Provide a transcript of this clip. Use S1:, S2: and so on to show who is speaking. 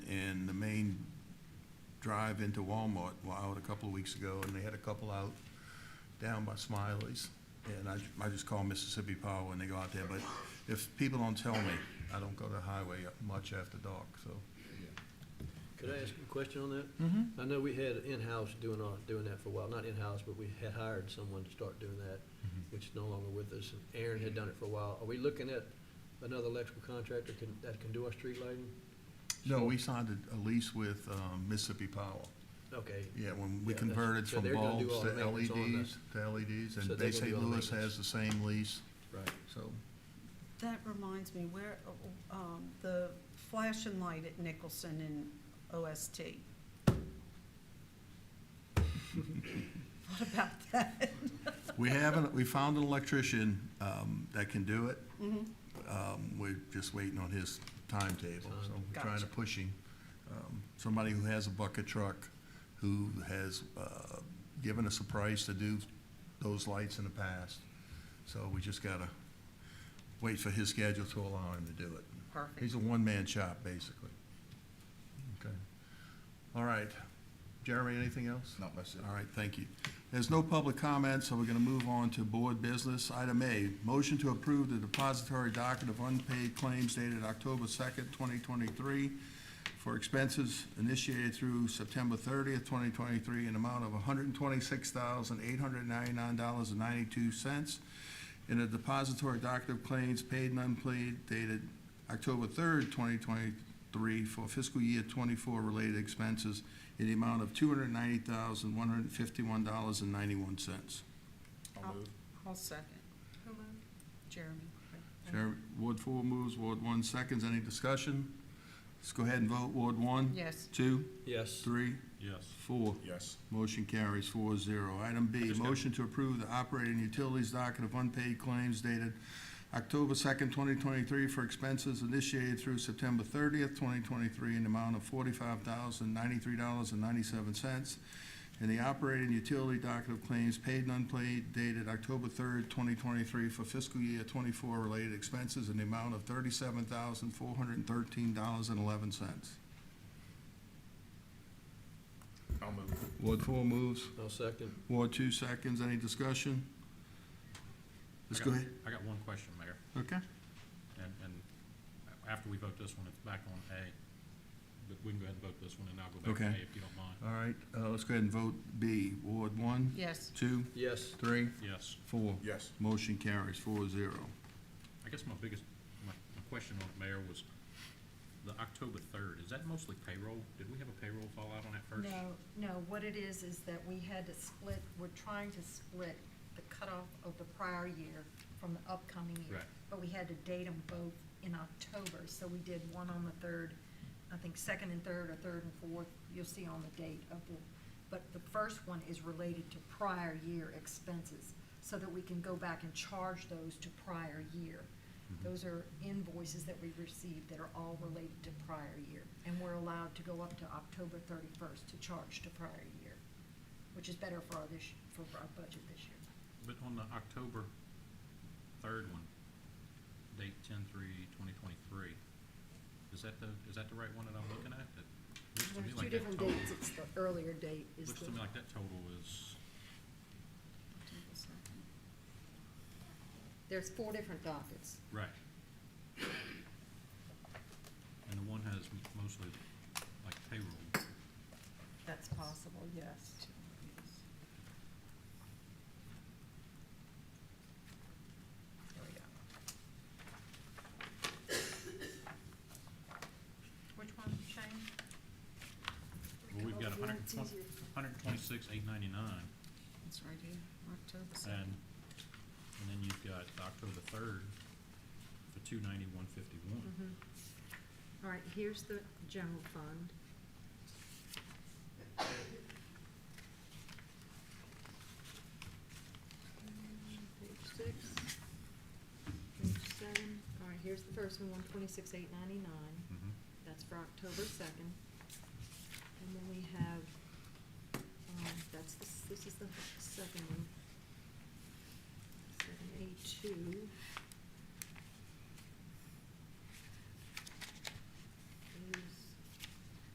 S1: drive into Walmart out a couple of weeks ago, and they had a couple out down by Smiley's. And I, I just call Mississippi Power when they go out there, but if people don't tell me, I don't go to the highway much after dark, so.
S2: Could I ask a question on that? I know we had in-house doing, all- doing that for a while, not in-house, but we had hired someone to start doing that, which is no longer with us, and Aaron had done it for a while. Are we looking at another electrical contractor can, that can do our street lighting?
S1: No, we signed a- a lease with um, Mississippi Power.
S2: Okay,
S1: Yeah, when we
S2: Yeah, that's-
S1: converted
S2: so
S1: from
S2: they're gonna do
S1: bulbs
S2: all the
S1: to
S2: maintenance on the-
S1: LEDs, to LEDs,
S2: So
S1: and
S2: they're
S1: Bay
S2: gonna
S1: St.
S2: do all the
S1: Louis
S2: maintenance.
S1: has the same lease,
S2: right.
S1: so.
S3: That reminds me, where, uh, um, the flash and light at Nicholson and OST. What about that?
S1: We haven't, we found an electrician um, that can do it. Um, We're just waiting on his timetable, so we're trying to
S3: Gotcha.
S1: push him. Um, Somebody who has a bucket truck, who has uh, given us a price to do those lights in the past. So we just gotta wait for his schedule to allow him to do it. He's
S3: Perfect.
S1: a one-man shop, basically. Okay. All right. Jeremy, anything else?
S4: Not much.
S1: All right, thank you. There's no public comment, so we're gonna move on to board business. Item A, motion to approve the depository docket of unpaid claims dated October second, twenty twenty-three for expenses initiated through September thirtieth, twenty twenty-three, in amount of hundred and twenty-six thousand, eight hundred and ninety-nine dollars and ninety-two cents. In a depository docket of claims paid and unpaid dated October third, twenty twenty-three for fiscal year twenty-four related expenses in the amount of two hundred ninety thousand, one hundred fifty-one dollars and ninety-one cents.
S3: I'll- I'll second. Jeremy.
S1: Chair, Ward four moves, Ward one seconds, any discussion? Let's go ahead and vote, Ward one?
S3: Yes.
S1: Two,
S2: Yes,
S1: three,
S4: Yes.
S1: four.
S4: Yes.
S1: Motion carries four zero. Item B,
S4: Just got-
S1: motion to approve the operating utilities docket of unpaid claims dated October second, twenty twenty-three for expenses initiated through September thirtieth, twenty twenty-three in the amount of forty-five thousand, ninety-three dollars and ninety-seven cents. And the operating utility docket of claims paid and unpaid dated October third, twenty twenty-three for fiscal year twenty-four related expenses in the amount of thirty-seven thousand, four hundred and thirteen dollars and eleven cents.
S4: I'll move.
S1: Ward four moves.
S2: I'll second.
S1: Ward two seconds, any discussion? Let's
S5: I
S1: go
S5: got-
S1: ahead,
S5: I got one question, Mayor,
S1: okay?
S5: and, and after we vote this one, it's back on A, but we can go ahead and vote this one, and I'll go back to A
S1: Okay.
S5: if you don't mind.
S1: All right, uh, let's go ahead and vote B, Ward one,
S3: Yes.
S1: two,
S2: Yes,
S1: three,
S5: Yes,
S1: four.
S4: Yes.
S1: Motion carries four zero.
S5: I guess my biggest, my, my question on it, Mayor, was the October third, is that mostly payroll? Did we have a payroll fallout on that first?
S6: No, no, what it is, is that we had to split, we're trying to split the cutoff of the prior year from the upcoming year.
S5: Right.
S6: But we had to date them both in October, so we did one on the third, I think second and third, or third and fourth, you'll see on the date of the, but the first one is related to prior year expenses, so that we can go back and charge those to prior year. Those are invoices that we received that are all related to prior year, and we're allowed to go up to October thirty-first to charge to prior year, which is better for our this, for our budget this year.
S5: But on the October third one, date ten three twenty twenty-three, is that the, is that the right one that I'm looking at? It looks to me
S6: There's two
S5: like that
S6: different
S5: total-
S6: dates, it's the earlier date is the.
S5: Looks to me like that total is,
S6: There's four different dockets.
S5: Right. And the one has m- mostly like payroll.
S6: That's possible, yes. There we go. Which one, Shane?
S5: Well, we've got a hundred and
S6: It's
S5: twenty,
S6: easier.
S5: hundred and twenty-six, eight ninety-nine,
S3: It's right here, October
S5: and,
S3: second.
S5: and then you've got October third for two ninety, one fifty-one.
S6: Mhm. Mm-hmm. All right, here's the general fund. Page six, page seven, all right, here's the first one, one twenty-six, eight ninety-nine,
S5: Mm-hmm.
S6: that's for October second. And then we have, um, that's, the s- this is the second one. Seven eight two.